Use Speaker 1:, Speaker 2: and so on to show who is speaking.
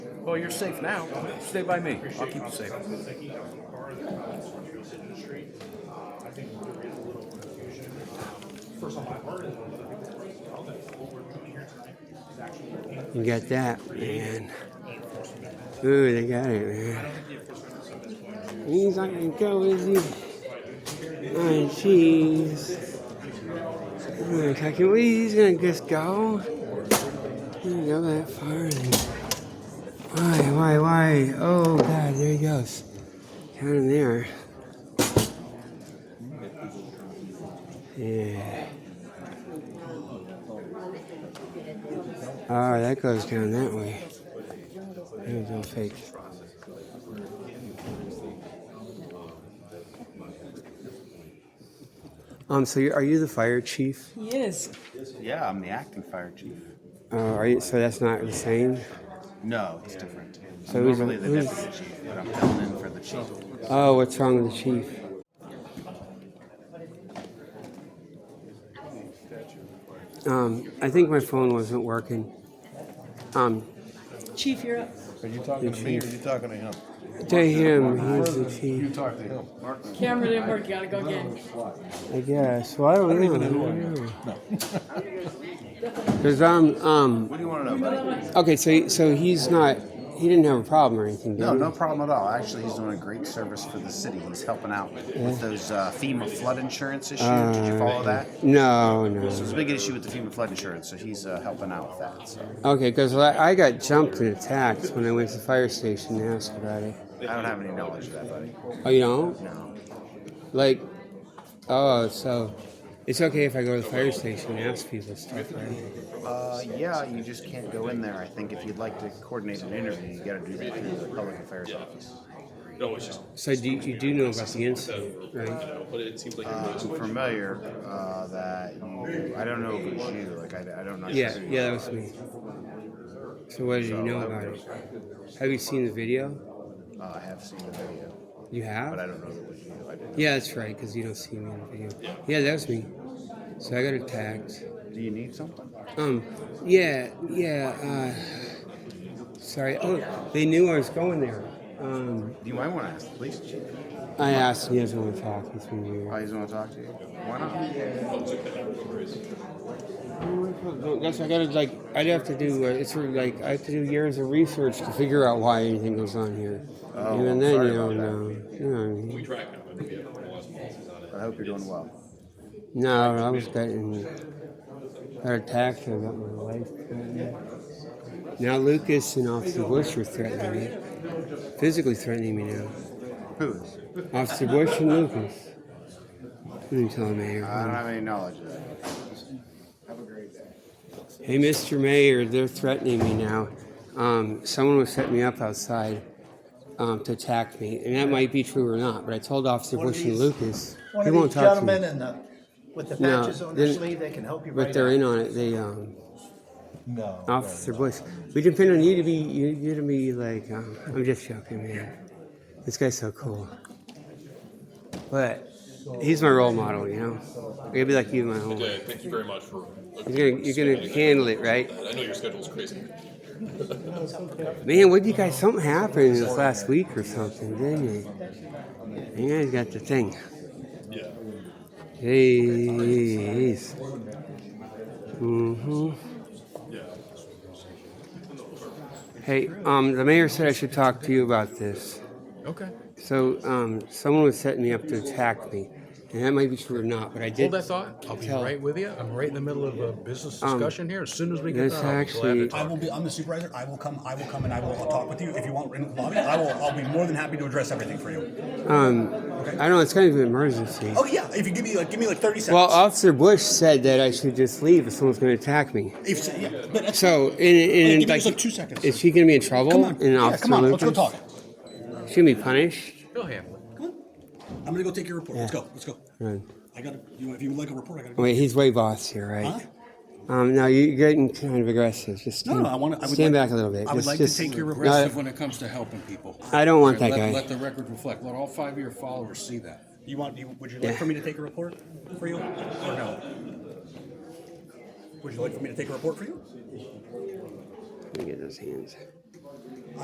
Speaker 1: Well, you're safe now. Stay by me. I'll keep you safe.
Speaker 2: You got that, man. Ooh, they got it, man. He's not gonna go, is he? Oh, jeez. Oh, I can we? He's gonna just go. He didn't go that far. Why, why, why? Oh, God, there he goes. Got him there. Yeah. Oh, that goes down that way. There we go, fake. Um, so you, are you the fire chief?
Speaker 3: He is.
Speaker 4: Yeah, I'm the acting fire chief.
Speaker 2: Uh, are you, so that's not the same?
Speaker 4: No, it's different.
Speaker 2: So
Speaker 4: I'm
Speaker 2: who's-
Speaker 4: normally the
Speaker 2: who's-
Speaker 4: deputy chief, but I'm filling in for the chief.
Speaker 2: Oh, what's wrong with the chief? Um, I think my phone wasn't working. Um,
Speaker 3: Chief, you're up.
Speaker 5: Are you talking to me or are you talking to him?
Speaker 2: to him, he's the
Speaker 5: You
Speaker 2: chief,
Speaker 5: talk to him.
Speaker 3: Camera didn't work. You gotta go again.
Speaker 2: I guess. Well, I don't, know. Because um, um,
Speaker 4: What do you want to know, buddy?
Speaker 2: Okay, so so he's not. He didn't have a problem or anything. Did
Speaker 4: No,
Speaker 2: he?
Speaker 4: no problem at all. Actually, he's doing a great service for the city. He's helping out with those uh, FEMA flood insurance issues.
Speaker 2: Ah,
Speaker 4: Did you follow that?
Speaker 2: No,
Speaker 4: So
Speaker 2: no.
Speaker 4: it's a big issue with the FEMA flood insurance, so he's uh, helping out with that. So
Speaker 2: Okay, because I, I got jumped and attacked when I went to the fire station to ask about it.
Speaker 4: I don't have any knowledge of that, buddy.
Speaker 2: Oh, you know,
Speaker 4: No.
Speaker 2: like, oh, so it's okay if I go to the fire station and ask people stuff, right?
Speaker 4: Uh, yeah, you just can't go in there. I think if you'd like to coordinate an interview, you got to do that through the public affairs office.
Speaker 2: So do you, you do know about the incident, right?
Speaker 4: Uh, I'm familiar uh, that you, I don't know if it was you. Like I, I don't know.
Speaker 2: Yeah, yeah, that was me. So what did you know about it? Have you seen the video?
Speaker 4: Uh, I have seen the video,
Speaker 2: You have?
Speaker 4: but I don't know if it was you. I didn't.
Speaker 2: Yeah, that's right, because you don't see me in the video. Yeah, that was me. So I got attacked.
Speaker 4: Do you need something?
Speaker 2: Um, yeah, yeah, uh, sorry. Oh, they knew I was going there. Um,
Speaker 4: You might want to ask the police chief.
Speaker 2: I asked if he doesn't want to talk. He's been weird.
Speaker 4: Oh, he's want to talk to you. Why not?
Speaker 2: That's I gotta like. I'd have to do. Uh, it's sort of like I have to do years of research to figure out why anything goes on here.
Speaker 4: Oh,
Speaker 2: Even then,
Speaker 4: sorry
Speaker 2: you don't
Speaker 4: about
Speaker 2: know. You know what I mean?
Speaker 4: I hope you're doing well.
Speaker 2: No, I was getting got attacked about my life. Now Lucas and Officer Bush are threatening me, physically threatening me now.
Speaker 4: Who is?
Speaker 2: Officer Bush and Lucas. What are you telling me here?
Speaker 4: I don't have any knowledge of that.
Speaker 2: Hey, Mr. Mayor, they're threatening me now. Um, someone was setting me up outside um, to attack me, and that might be true or not. But I told Officer
Speaker 6: One of
Speaker 2: Bush and
Speaker 6: these-
Speaker 2: Lucas
Speaker 6: One
Speaker 2: he
Speaker 6: of
Speaker 2: won't
Speaker 6: these
Speaker 2: talk
Speaker 6: gentlemen
Speaker 2: to me.
Speaker 6: in the, with the
Speaker 2: No,
Speaker 6: patches on their
Speaker 2: then-
Speaker 6: sleeve, they can help you
Speaker 2: But
Speaker 6: right
Speaker 2: they're
Speaker 6: out.
Speaker 2: in on it. They um,
Speaker 5: No.
Speaker 2: Officer Bush. We depend on you to be you, you to be like. Um, I'm just joking, man. This guy's so cool. But he's my role model, you know. I gotta be like you, my whole.
Speaker 7: Okay, thank you very much for.
Speaker 2: You're gonna you're gonna handle it, right?
Speaker 7: I know your schedule's crazy.
Speaker 2: Man, what you guys? Something happened this last week or something, didn't it? You guys got the thing.
Speaker 7: Yeah.
Speaker 2: Jeez. hmm Hey, um, the mayor said I should talk to you about this.
Speaker 5: Okay.
Speaker 2: So, um, someone was setting me up to attack me, and that might be true or not, but I did.
Speaker 5: Hold that thought. I'll be
Speaker 2: Tell- Um,
Speaker 5: right with you. I'm right in the middle of a business discussion here. As soon as we get
Speaker 2: this
Speaker 5: done, I'll be glad
Speaker 2: actually-
Speaker 5: to
Speaker 8: I
Speaker 5: talk.
Speaker 8: will be. I'm the supervisor. I will come. I will come and I will talk with you if you want in the lobby. I will. I'll be more than happy to address everything for you.
Speaker 2: Um, I don't know. It's kind of an emergency.
Speaker 8: Oh yeah. If you give me like give me like thirty seconds.
Speaker 2: Well, uh, Officer Bush said that I should just leave if someone's going to attack me.
Speaker 8: if, yeah, but that's,
Speaker 2: So, and, and
Speaker 8: give me
Speaker 2: like,
Speaker 8: just, like, two seconds.
Speaker 2: Is she gonna be in trouble?
Speaker 8: come on.
Speaker 2: And
Speaker 8: Yeah,
Speaker 2: Officer
Speaker 8: come on. Let's
Speaker 2: Lucas?
Speaker 8: go talk.
Speaker 2: She gonna be punished?
Speaker 5: He'll handle it.
Speaker 8: I'm gonna go take your report. Let's go. Let's go.
Speaker 2: Right.
Speaker 8: I got. to You, if you would like a report, I got. to
Speaker 2: Wait, he's way boss here, right?
Speaker 8: Huh?
Speaker 2: Um, no, you're getting kind of aggressive. Just
Speaker 8: No,
Speaker 2: stand,
Speaker 8: no, I want to. I would
Speaker 2: stand
Speaker 8: like,
Speaker 2: back a little bit.
Speaker 8: I would
Speaker 2: Just-
Speaker 8: like
Speaker 2: just-
Speaker 8: to take your
Speaker 2: no,
Speaker 9: aggressive when it comes to helping people.
Speaker 2: I don't want that
Speaker 9: let,
Speaker 2: guy.
Speaker 9: Let the record reflect. Let all five of your followers see that.
Speaker 8: You want? You, would you like
Speaker 2: Yeah.
Speaker 8: for me to take a report for you, or no? Would you like for me to take a report for you?
Speaker 2: Let me get those hands.